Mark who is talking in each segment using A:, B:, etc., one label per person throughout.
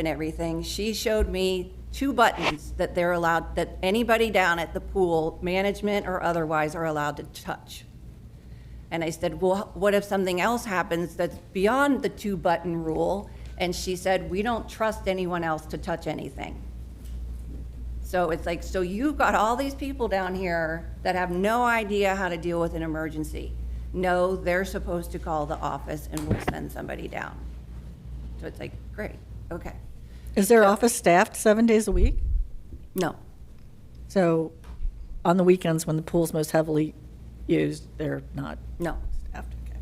A: and everything, she showed me two buttons that they're allowed, that anybody down at the pool, management or otherwise, are allowed to touch. And I said, well, what if something else happens that's beyond the two-button rule? And she said, we don't trust anyone else to touch anything. So it's like, so you've got all these people down here that have no idea how to deal with an emergency. No, they're supposed to call the office and we'll send somebody down. So it's like, great, okay.
B: Is their office staffed seven days a week?
A: No,
B: So on the weekends when the pool's most heavily used, they're not
A: no.
B: staffed. Okay.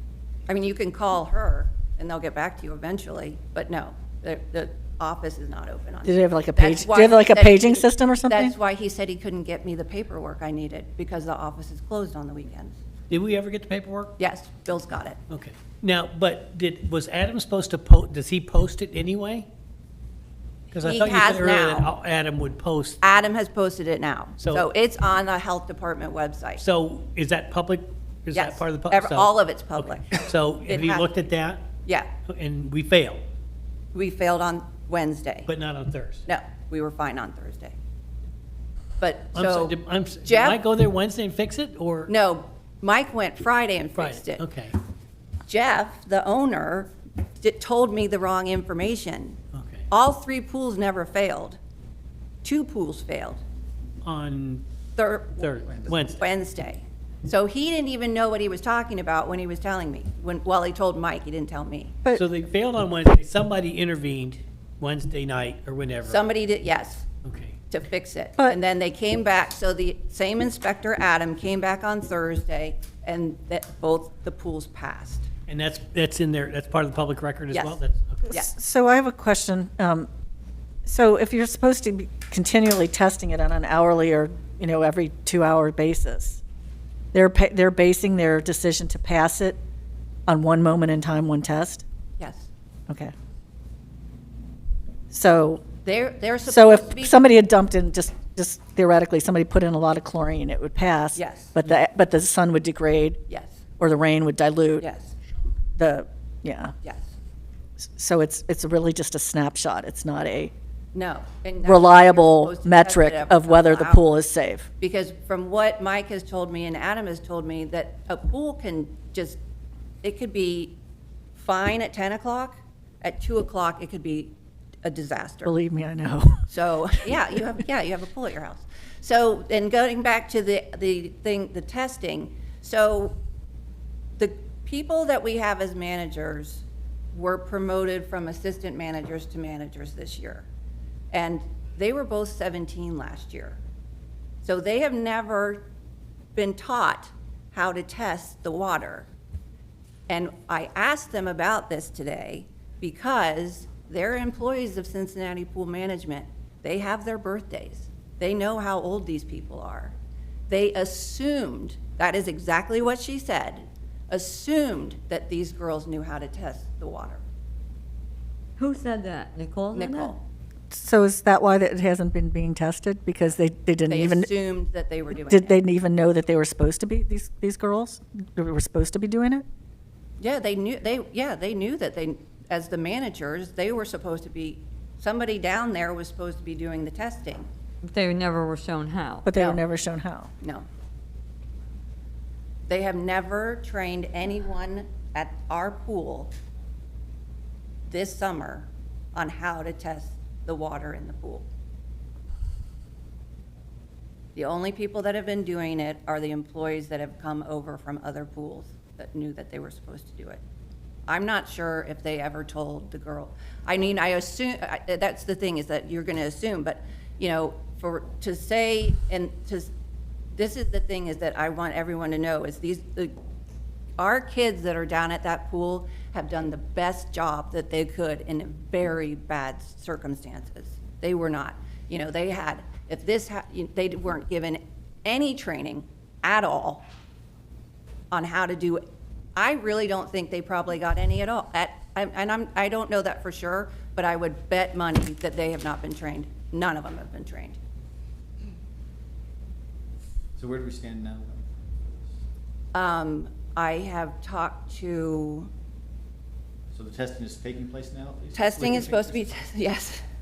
A: I mean, you can call her and they'll get back to you eventually, but no, the, the office is not open on.
B: Do they have like a
A: That's
B: page- do
A: why
B: they have like a
A: he said-
B: paging system or something?
A: That's why he said he couldn't get me the paperwork I needed because the office is closed on the weekends.
C: Did we ever get the paperwork?
A: Yes, Bill's got it.
C: Okay. Now, but did, was Adam supposed to post, does he post it anyway? Because I
A: He
C: thought you
A: has
C: said earlier that
A: now.
C: Al- Adam would post.
A: Adam has posted it now.
C: So-
A: So it's on the health department website.
C: So is that public? Is that
A: Yes.
C: part of the? pub-
A: Ever-
C: so-
A: All of it's public.
C: So
A: It
C: have you
A: has-
C: looked at that?
A: Yeah,
C: And we failed,
A: we failed on Wednesday.
C: but not on Thursday.
A: No, we were fine on Thursday. But
C: I'm so-
A: so,
C: did- I'm, s- did
A: Jeff-
C: I go there Wednesday and fix it or?
A: no, Mike went Friday and
C: Friday?
A: fixed it.
C: Okay,
A: Jeff, the owner, di- told me the wrong information.
C: okay.
A: All three pools never failed. Two pools failed.
C: On
A: Thir-
C: Thursday, Wednesday.
A: Wednesday. So he didn't even know what he was talking about when he was telling me, when, well, he told Mike, he didn't tell me.
B: But-
C: So they failed on Wednesday. Somebody intervened Wednesday night or whenever.
A: Somebody did, yes,
C: Okay.
A: to fix it.
B: But-
A: And then they came back, so the same inspector, Adam, came back on Thursday, and that both the pools passed.
C: And that's, that's in there, that's part of the public record as
A: Yes.
C: well? That's- okay.
A: Yeah.
B: So I have a question. Um, So if you're supposed to be continually testing it on an hourly or, you know, every two-hour basis, they're, pa- they're basing their decision to pass it on one moment in time, one test?
A: Yes.
B: Okay. So
A: They're, they're
B: So
A: supposed to be.
B: if somebody had dumped in, just, just theoretically, somebody put in a lot of chlorine, it would pass.
A: Yes.
B: But the, but the sun would degrade,
A: Yes,
B: or the rain would dilute.
A: yes,
B: The, yeah,
A: yes.
B: so it's, it's really just a snapshot, it's not a
A: No. and that's why you're
B: reliable
A: supposed to test
B: metric
A: it every
B: of whether the
A: couple hours.
B: pool is safe.
A: Because from what Mike has told me and Adam has told me, that a pool can just, it could be fine at 10 o'clock, at 2 o'clock, it could be a disaster.
B: Believe me, I know.
A: So, yeah, you have, yeah, you have a pool at your house. So, and going back to the, the thing, the testing, so the people that we have as managers were promoted from assistant managers to managers this year. And they were both 17 last year. So they have never been taught how to test the water. And I asked them about this today because they're employees of Cincinnati Pool Management. They have their birthdays. They know how old these people are. They assumed, that is exactly what she said, assumed that these girls knew how to test the water.
D: Who said that? Nicole? said that?
A: Nicole,
B: So is that why that it hasn't been being tested? Because they, they didn't
A: they
B: even,
A: assumed that they were doing
B: did they
A: it.
B: even know that they were supposed to be, these, these girls? They were supposed to be doing it?
A: Yeah, they knew, they, yeah, they knew that they, as the managers, they were supposed to be, somebody down there was supposed to be doing the testing.
D: They never were shown how.
B: But they were
A: No.
B: never shown how.
A: No. They have never trained anyone at our pool this summer on how to test the water in the pool. The only people that have been doing it are the employees that have come over from other pools that knew that they were supposed to do it. I'm not sure if they ever told the girl. I mean, I assume, I- that's the thing, is that you're going to assume, but, you know, for, to say, and to, s- this is the thing, is that I want everyone to know, is these, the- our kids that are down at that pool have done the best job that they could in very bad circumstances. They were not, you know, they had, if this, ha- you- they weren't given any training at all on how to do, I really don't think they probably got any at all. At- I'm- And I'm, I don't know that for sure, but I would bet money that they have not been trained. None of them have been trained.
E: So where do we stand now? then?
A: Um, I have talked to
F: So the testing is taking place now?
E: Testing is supposed to be, yes.